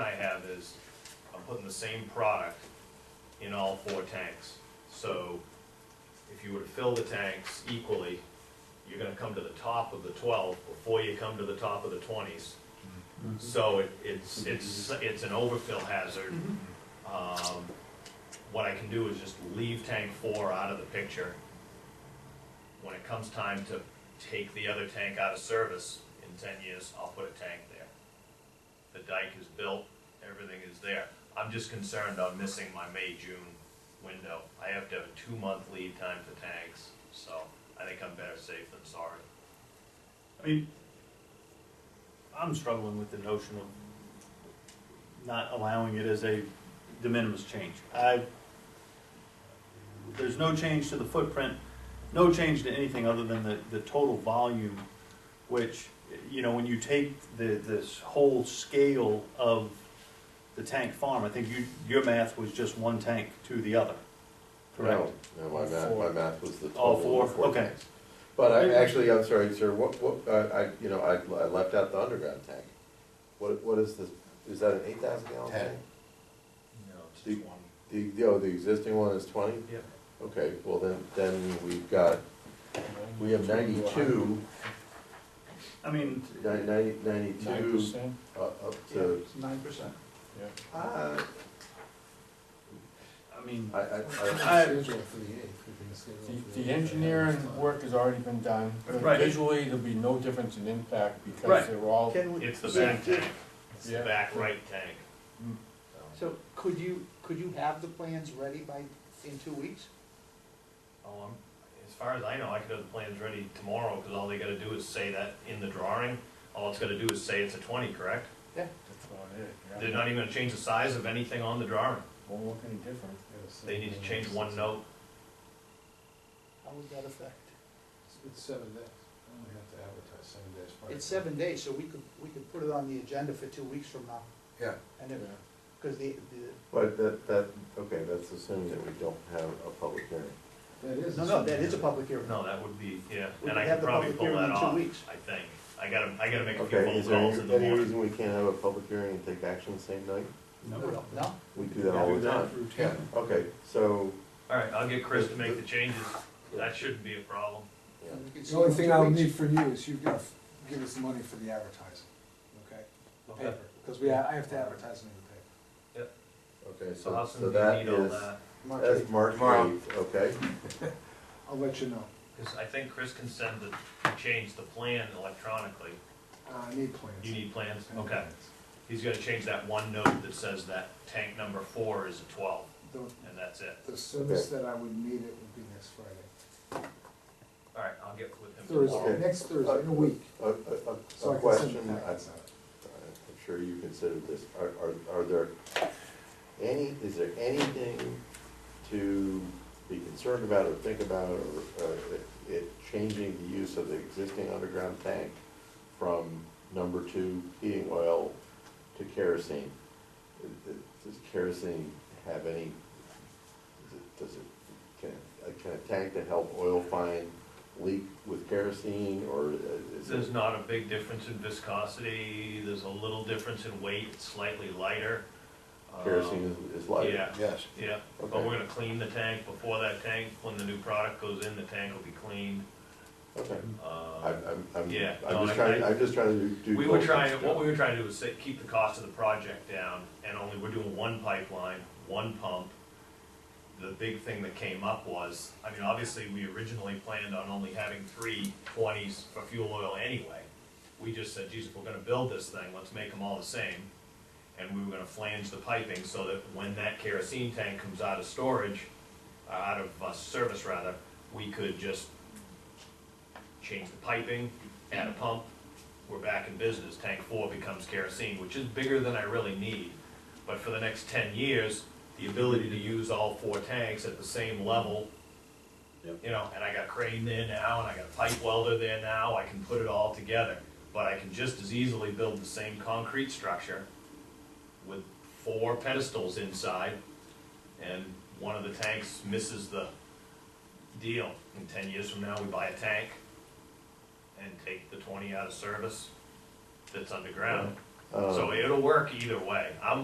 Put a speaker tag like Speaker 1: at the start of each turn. Speaker 1: have is, I'm putting the same product in all four tanks. So if you were to fill the tanks equally, you're gonna come to the top of the twelve before you come to the top of the twenties. So it, it's, it's, it's an overfill hazard. Um, what I can do is just leave tank four out of the picture. When it comes time to take the other tank out of service in ten years, I'll put a tank there. The dike is built, everything is there. I'm just concerned on missing my May, June window. I have to have a two-month lead time for tanks, so I think I'm better safe than sorry.
Speaker 2: I mean, I'm struggling with the notion of not allowing it as a de minimis change. I, there's no change to the footprint, no change to anything other than the, the total volume, which, you know, when you take the, this whole scale of the tank farm, I think you, your math was just one tank to the other, correct?
Speaker 3: No, my math, my
Speaker 2: Four.
Speaker 3: math was the
Speaker 2: All
Speaker 3: total. of
Speaker 2: four, okay.
Speaker 3: tanks. But I, actually, I'm sorry, sir, what, what, I, I, you know, I, I left out the underground tank. What, what is the, is that an eight thousand gallon
Speaker 4: Ten.
Speaker 3: tank?
Speaker 1: No, it's
Speaker 3: The- The, oh, the existing one is twenty?
Speaker 1: Yep.
Speaker 3: Okay, well then, then we've got, we have ninety-two,
Speaker 2: I mean,
Speaker 3: nine- ninety,
Speaker 4: Nine
Speaker 3: ninety-two,
Speaker 4: percent?
Speaker 3: uh, up to,
Speaker 4: Nine percent. Yeah.
Speaker 3: uh,
Speaker 2: I mean.
Speaker 3: I, I, I,
Speaker 2: I-
Speaker 4: The, the engineering work has already been done, but
Speaker 2: Right.
Speaker 4: visually, there'll be no difference in impact
Speaker 2: Right.
Speaker 4: because they're all,
Speaker 5: Can we,
Speaker 1: Oh, It's the back tank, it's the
Speaker 4: Yeah.
Speaker 1: back right tank.
Speaker 5: Hmm.
Speaker 4: Mm.
Speaker 1: So-
Speaker 5: so could you, could you have the plans ready by, in two weeks?
Speaker 1: Oh, I'm, as far as I know, I could have the plans ready tomorrow, because all they gotta do is say that in the drawing. All it's gotta do is say it's a twenty, correct?
Speaker 4: that's all it is.
Speaker 1: They're
Speaker 4: yeah.
Speaker 1: not even gonna change the size of anything on the drawing.
Speaker 4: Won't look any different.
Speaker 1: They need to
Speaker 5: Mm-hmm.
Speaker 1: change one note.
Speaker 5: How would that affect?
Speaker 6: It's seven days, I only have to advertise seven days. prior.
Speaker 5: It's seven days, so we could, we could put it on the agenda for two weeks from now.
Speaker 6: Yeah.
Speaker 5: And
Speaker 4: Yeah.
Speaker 5: if, because the,
Speaker 3: but that, that, okay, that's assuming that we don't have a public hearing.
Speaker 6: That is.
Speaker 5: the, no, no, that is a public hearing.
Speaker 1: No, that would be, yeah,
Speaker 5: We
Speaker 1: and I could
Speaker 5: could have the
Speaker 1: probably
Speaker 5: public
Speaker 1: pull
Speaker 5: hearing
Speaker 1: that
Speaker 5: in two
Speaker 1: off,
Speaker 5: weeks.
Speaker 1: I think. I gotta, I gotta make a few
Speaker 3: Okay,
Speaker 1: phone
Speaker 3: is there
Speaker 1: calls in the
Speaker 3: any
Speaker 1: morning.
Speaker 3: reason we can't have a public hearing and take action the same night?
Speaker 5: No, no?
Speaker 3: We do that all the time.
Speaker 6: Yeah,
Speaker 3: Okay, so,
Speaker 1: Alright, I'll get Chris to make the changes. That shouldn't be a problem.
Speaker 3: yeah.
Speaker 5: We could see
Speaker 7: The only
Speaker 5: in
Speaker 7: thing
Speaker 5: two
Speaker 7: I'll
Speaker 5: weeks.
Speaker 7: need from you is you've got to give us the money for the advertising, okay? The paper, because we, I have to advertise in the
Speaker 3: okay,
Speaker 1: So how
Speaker 3: so, so
Speaker 1: soon do you
Speaker 3: that
Speaker 1: need all
Speaker 3: is,
Speaker 1: that?
Speaker 7: paper. March
Speaker 3: that's
Speaker 7: eighth.
Speaker 3: March
Speaker 7: Tomorrow.
Speaker 3: eighth, okay?
Speaker 7: I'll let you know.
Speaker 1: Cause I think Chris can send the, change the plan electronically.
Speaker 7: Uh, I need plans.
Speaker 1: You need plans?
Speaker 7: I need
Speaker 1: Okay.
Speaker 7: plans.
Speaker 1: He's gonna change that one note that says that tank number four is a twelve,
Speaker 7: The-
Speaker 1: and that's it.
Speaker 7: The soonest that I would need it would be next Friday.
Speaker 1: Alright, I'll get with him tomorrow.
Speaker 7: Thursday, next Thursday, in a week.
Speaker 3: A, a-
Speaker 7: So
Speaker 3: a,
Speaker 7: I
Speaker 3: a
Speaker 7: can send
Speaker 3: question,
Speaker 7: the
Speaker 3: I-
Speaker 7: packets out.
Speaker 3: I'm sure you considered this, are, are, are there any, is there anything to be concerned about or think about, or, uh, it, it changing the use of the existing underground tank from number two heating oil to kerosene? Uh, uh, Does kerosene have any, does it- does it, can, a- can a tank to help oil find leak with kerosene, or uh, is it?
Speaker 1: There's not a big difference in viscosity, there's a little difference in weight, it's slightly lighter. Um,
Speaker 3: Kerosene is, is light.
Speaker 1: Yeah,
Speaker 4: Yes.
Speaker 1: yeah, but
Speaker 3: Okay.
Speaker 1: we're gonna clean the tank before that tank, when the new product goes in, the tank will be cleaned.
Speaker 3: Okay.
Speaker 1: Uh,
Speaker 3: I'm, I'm, I'm,
Speaker 1: Yeah, no,
Speaker 3: I'm
Speaker 1: I-
Speaker 3: just trying,
Speaker 1: I-
Speaker 3: I'm just trying to do.
Speaker 1: We were
Speaker 3: both
Speaker 1: trying,
Speaker 3: things.
Speaker 1: what we were trying to do was say, keep the cost of the project down, and only, we're doing one pipeline, one pump. The big thing that came up was, I mean, obviously, we originally planned on only having three twenties for fuel oil anyway. We just said, geez, if we're gonna build this thing, let's make them all the same. And we were gonna flange the piping so that when that kerosene tank comes out of storage, uh, out of, uh, service rather, we could just change the piping, add a pump, we're back in business, tank four becomes kerosene, which is bigger than I really need. But for the next ten years, the ability to use all four tanks at the same level, you know, and I got crane there now, and I got pipe welder there now, I can put it all together. But I can just as easily build the same concrete structure with four pedestals inside, and one of the tanks misses the deal. In ten years from now, we buy a tank and take the twenty out of service that's underground.
Speaker 3: Uh,
Speaker 1: So it'll work either way. I'm